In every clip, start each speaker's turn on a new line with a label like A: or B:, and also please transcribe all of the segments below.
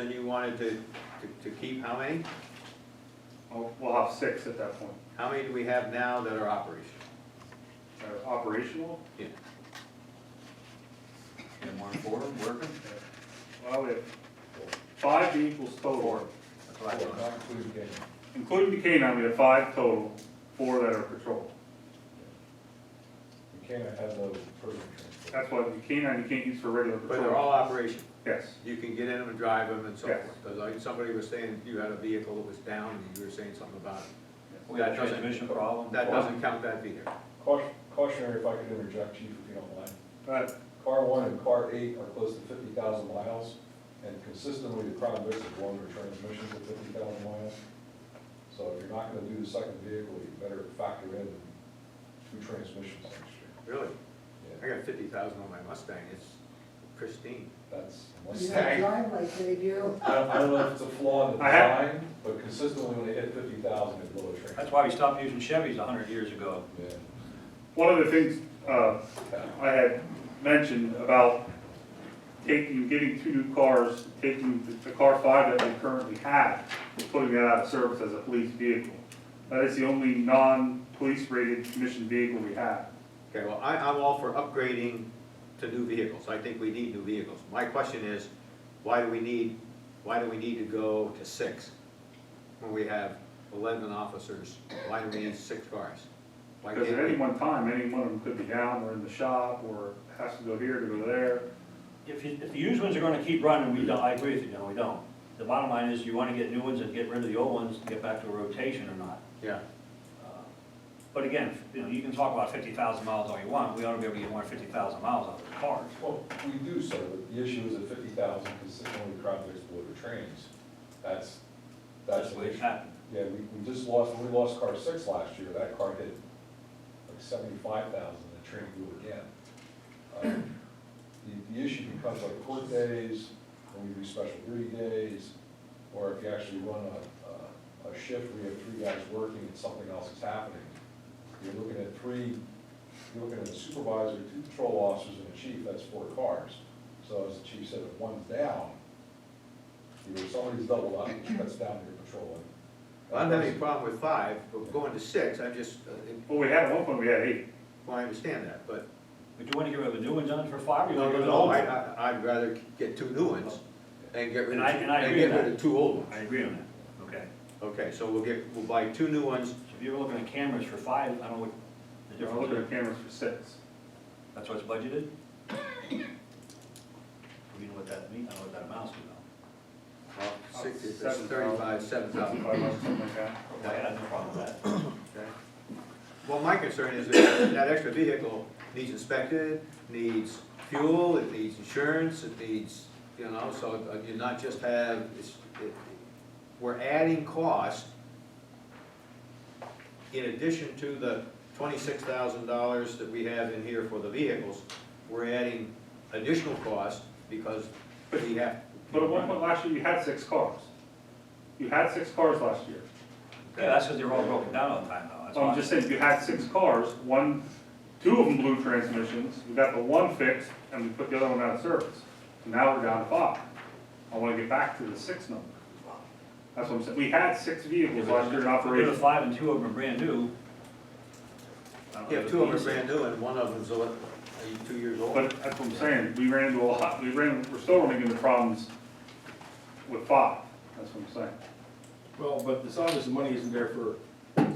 A: And you wanted to, to- to keep how many?
B: We'll we'll have six at that point.
A: How many do we have now that are operational?
B: Uh, Operational,
A: Yeah. And one four working?
B: uh, well, we have five vehicles total.
A: That's what I thought.
B: Including the canine, we have five total, four that are patrol.
C: You can't have those prison transports.
B: That's why the canine you can't use for regular
A: But they're
B: patrol.
A: all operational.
B: Yes,
A: You can get in them and drive them and so
B: Yes.
A: forth. Because like somebody was saying, you had a vehicle that was down and you were saying something about it.
D: We had a
A: That doesn't-
D: transmission problem.
A: That doesn't count that either.
C: Caution- Cautionary, if I could interject, chief, if you don't mind.
B: but
C: Car one and car eight are close to fifty thousand miles, and consistently, the crime rates of longer transmissions at fifty thousand miles. So if you're not gonna do the second vehicle, you better factor in two transmissions next year.
A: Really? I
C: Yeah,
A: got fifty thousand on my Mustang. It's pristine.
C: that's
E: You don't
C: Mustang.
E: drive like they do.
C: I don't- I don't know if it's a flaw in the
B: I have-
C: design, but consistently, when they hit fifty thousand, it blows a train.
D: That's why we stopped using Chevys a hundred years ago.
C: Yeah.
B: one of the things uh, I had mentioned about taking, getting two new cars, taking the- the car five that we currently have, and putting that out of service as a police vehicle. That is the only non-police rated commission vehicle we have.
A: Okay, well, I, I'm all for upgrading to new vehicles, I think we need new vehicles. My question is, why do we need, why do we need to go to six? When we have eleven officers, why do we need six cars? Why
B: Because at any
A: can't we?
B: one time, any one of them could be down or in the shop or has to go here to go there.
D: If you, if the used ones are gonna keep running, we don't, I agree with you, no, we don't. The bottom line is you wanna get new ones and get rid of the old ones to get back to a rotation or not.
A: Yeah,
D: Uh, But again, you know, you can talk about fifty thousand miles all you want, we ought to be able to get more than fifty thousand miles out of the cars.
C: Well, we do, sir, but the issue is at fifty thousand, consistently the crime rates below the trains. That's, that's
D: That's
C: the
D: what
C: issue.
D: happened.
C: Yeah, we, we just lost, when we lost car six last year, that car hit like seventy-five thousand, the train blew again. Um, The, the issue becomes like court days, when we do special duty days, or if you actually run a, a, a shift where you have three guys working and something else is happening. You're looking at three, you're looking at a supervisor, two patrol officers and a chief, that's four cars. So as the chief said, if one's down, you know, somebody's doubled up, which cuts down your patrolling.
A: I don't have any problem with five, but going to six, I just, uh,
B: Well, we had, at one point, we had eight.
A: well, I understand that, but.
D: But you wanna get rid of the new ones on it for five, or you
A: No,
D: wanna
A: no,
D: get rid of the
A: no,
D: old
A: I,
D: ones?
A: I, I'd rather get two new ones and get rid
D: And
A: of,
D: I- and I
A: and
D: agree
A: get
D: with
A: rid
D: that.
A: of two old ones.
D: I agree on that, okay.
A: Okay, so we'll get, we'll buy two new ones
D: So If you were looking at cameras for five, I don't know what the
B: We're looking
D: difference
B: at
D: is.
B: cameras for six.
D: That's what's budgeted? We know what that means, I don't know what that amounts to though.
A: Well, uh, six, it's
B: Seven thousand.
A: thirty-five, seven thousand.
B: Five hundred, something like that.
D: I had no problem with that.
A: Okay. Well, my concern is that that extra vehicle needs inspected, needs fuel, it needs insurance, it needs, you know, so it- uh, you not just have, it's, it- we're adding cost in addition to the twenty-six thousand dollars that we have in here for the vehicles, we're adding additional cost because we have.
B: But at one point last year, you had six cars. You had six cars last year.
D: Yeah, that's because they were all broken down all the time though, that's
B: So I'm just
D: why.
B: saying, you had six cars, one, two of them blew transmissions, we got the one fixed, and we put the other one out of service. Now we're down to five. I wanna get back to the six number. That's what I'm saying, we had six vehicles last year in
D: If you go to
B: operation.
D: five and two of them are brand new. I don't know
A: Yeah,
D: if
A: two of them
D: it's
A: are brand new and one of them's, uh, two years old.
B: But that's what I'm saying, we ran into a lot, we ran, we're still running into problems with five, that's what I'm saying.
F: Well, but it's obvious the money isn't there for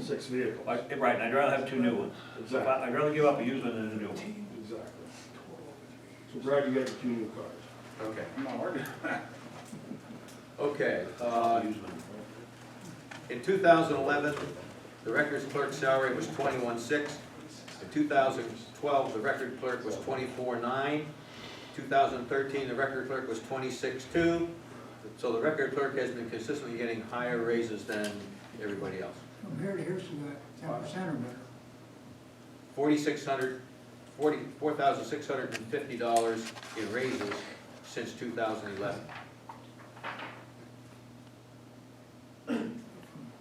F: six vehicles.
D: Like, Right, and I'd rather have two new ones. If
F: Exactly,
D: I- I'd rather give up a used one than a new one.
F: exactly. So Brad, you got your two new cars.
A: Okay.
B: I'm not arguing.
A: Okay, uh,
D: Used one.
A: in two thousand eleven, the records clerk's salary was twenty-one six. In two thousand twelve, the record clerk was twenty-four nine. Two thousand thirteen, the record clerk was twenty-six two. So the record clerk has been consistently getting higher raises than everybody else.
E: From here to here, she got ten percent or better.
A: Forty-six hundred, forty, four thousand six hundred and fifty dollars in raises since two thousand eleven.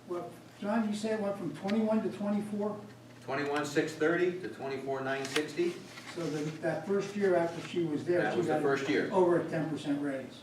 E: What, John, you say it went from twenty-one to twenty-four?
A: Twenty-one six thirty to twenty-four nine sixty,
E: So the- that first year after she was there,
A: that
E: she
A: was the
E: got
A: first year.
E: over a ten percent raise.